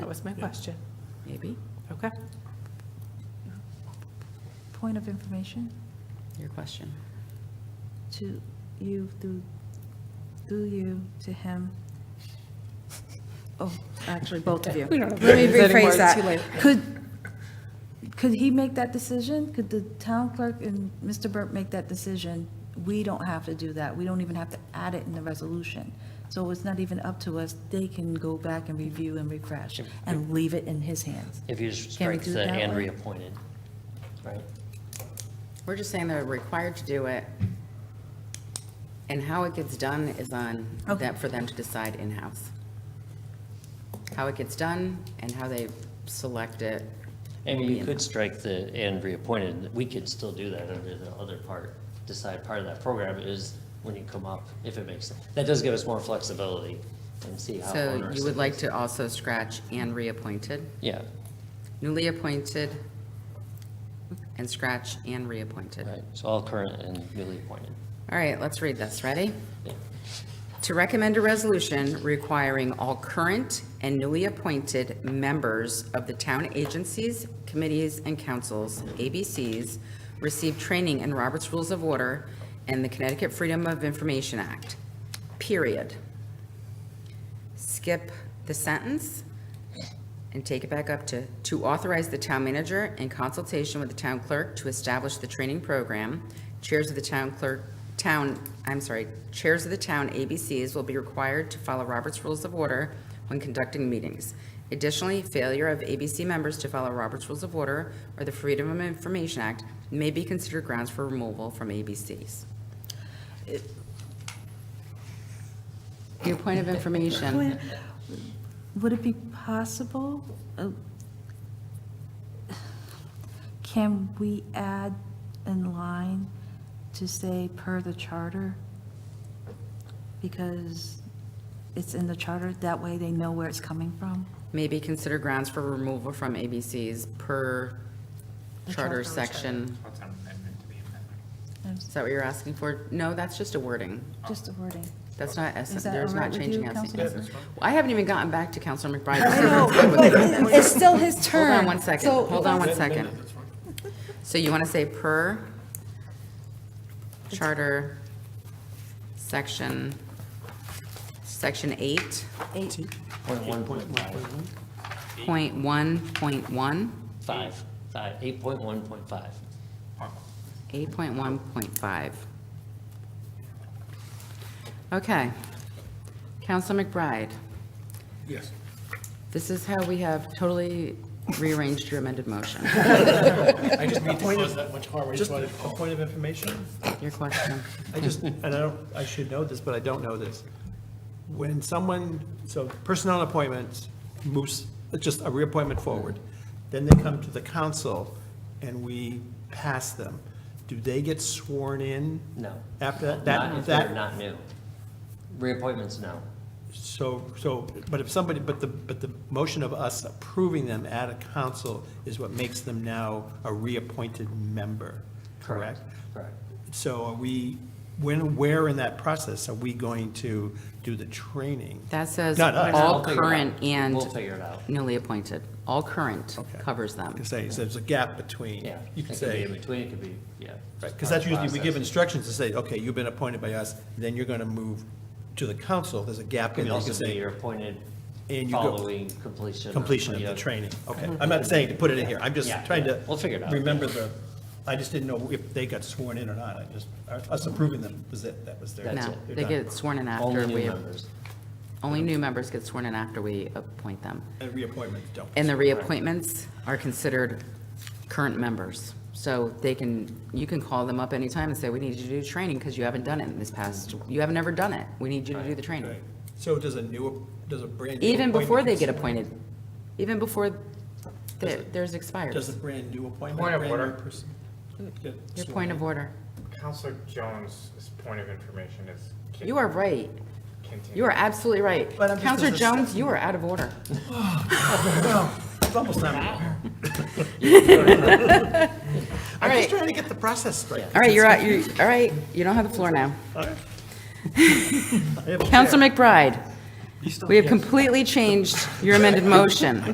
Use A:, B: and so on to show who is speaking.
A: was my
B: Yeah.
A: question.
C: Maybe,
A: Okay.
D: Point of information
C: your question.
D: to you through, through you to him. Oh, actually, both of you. Let me rephrase that. Could, could he make that decision? Could the town clerk and Mr. Burke make that decision? We don't have to do that. We don't even have to add it in the resolution. So it's not even up to us. They can go back and review and refresh and leave it in his hands.
E: If you just
D: Can we
E: strike
D: do it
E: the
D: that
E: and
D: way?
E: reappointed, right?
C: We're just saying they're required to do it, and how it gets done is on
D: Okay.
C: them, for them to decide in-house. How it gets done and how they select it.
E: I mean,
C: will be
E: you
C: in-
E: could strike the and reappointed, we could still do that under the other part. Decide part of that program is when you come up, if it makes sense. That does give us more flexibility and see how
C: So
E: onerous
C: you
E: it
C: would like
E: is.
C: to also scratch and reappointed,
E: Yeah,
C: newly appointed, and scratch and reappointed.
E: right, so all current and newly appointed.
C: All right, let's read this. Ready?
E: Yeah.
C: To recommend a resolution requiring all current and newly appointed members of the town agencies, committees, and councils, ABCs, receive training in Robert's Rules of Order and the Connecticut Freedom of Information Act, period. Skip the sentence and take it back up to, to authorize the town manager in consultation with the town clerk to establish the training program. Chairs of the town clerk, town, I'm sorry, chairs of the town ABCs will be required to follow Robert's Rules of Order when conducting meetings. Additionally, failure of ABC members to follow Robert's Rules of Order or the Freedom of Information Act may be considered grounds for removal from ABCs. Your point of information,
D: Would it be possible? uh, Can we add in line to say per the charter? Because it's in the charter, that way they know where it's coming from.
C: may be considered grounds for removal from ABCs per charter section.
F: What's an amendment to the amendment?
C: Is that what you're asking for? No, that's just a wording.
D: Just the wording.
C: That's not, S-
D: Is that
C: there's
D: all right
C: not
D: with
C: changing
D: you,
C: S.
D: Councilman?
C: Well, I haven't even gotten back to Counselor McBride.
G: I know, but it- it's still his
C: Hold
G: turn.
C: on one second,
G: So-
C: hold on one second. So you want to say per charter section, section eight,
E: Point one, point five,
C: point one, point one?
E: five, five, eight point one, point five.
C: 8.1.5. Okay. Counsel McBride,
F: Yes.
C: this is how we have totally rearranged your amended motion,
F: I just need to
H: Point
F: close
H: of-
F: that much harm. I just
H: Just
F: wanted
H: a
F: to
H: point of information.
C: your question.
H: I just, and I don't, I should know this, but I don't know this. When someone, so personnel appointments moves, just a reappointment forward, then they come to the council and we pass them. Do they get sworn in?
E: No.
H: After
E: Not
H: that- that,
E: if they're
H: that,
E: not new. Reappointments, no.
H: so, so, but if somebody, but the, but the motion of us approving them at a council is what makes them now a reappointed member, correct?
E: Correct.
H: So are we, when, where in that process are we going to do the training?
C: That says
H: Not us.
C: all
E: We'll figure it out.
C: current
E: We'll
C: and
E: figure it out.
C: newly appointed. All current
H: Okay.
C: covers them.
H: Because say, so there's a gap between,
E: Yeah.
H: you could
E: It could be in
H: say,
E: between, it could be, yeah. just part
H: because
E: of
H: that's
E: the
H: usually, we give
E: process.
H: instructions to say, okay, you've been appointed by us, then you're going to move to the council, there's a gap. in
E: Could
H: there. You can
E: also be
H: say
E: your appointed
H: And you go-
E: following completion. of-
H: Completion of
E: yeah.
H: the training, okay. I'm not saying to put it in here, I'm just
E: Mm-hmm. Yeah,
H: trying
E: yeah.
H: to.
E: We'll figure it out.
H: Remember the, I just didn't know if they got sworn in or not, I just, us approving them was it, that was their.
E: That's
C: No,
E: it.
H: They're
C: they
H: done.
C: get sworn in after
E: Only new
C: we,
E: members.
C: only new members get sworn in after we appoint them.
H: And reappointments don't.
C: And the reappointments are considered current members. So they can, you can call them up anytime and say, we need you to do training because you haven't done it in this past, you haven't ever done it. We need you to do the training.
H: Right. So does a new, does a brand new.
C: Even before they
H: appointment-
C: get appointed, even before their- theirs expires.
H: Does a brand new appointment?
F: Point of
H: brand new
F: order.
H: person get
C: Your
H: sworn
C: point
H: in?
C: of order.
F: Counselor Jones' point of information is. con-
C: You are right.
F: continued.
C: You are absolutely right.
H: But I'm just-
C: Counselor Jones, you are out of order.
H: It's almost time.
C: All
H: I'm
C: right,
H: just trying to get the process straight.
C: all right, you're out, you, all right, you don't have the floor now.
H: I have a chair.
C: Counselor McBride, we have completely changed your amended motion.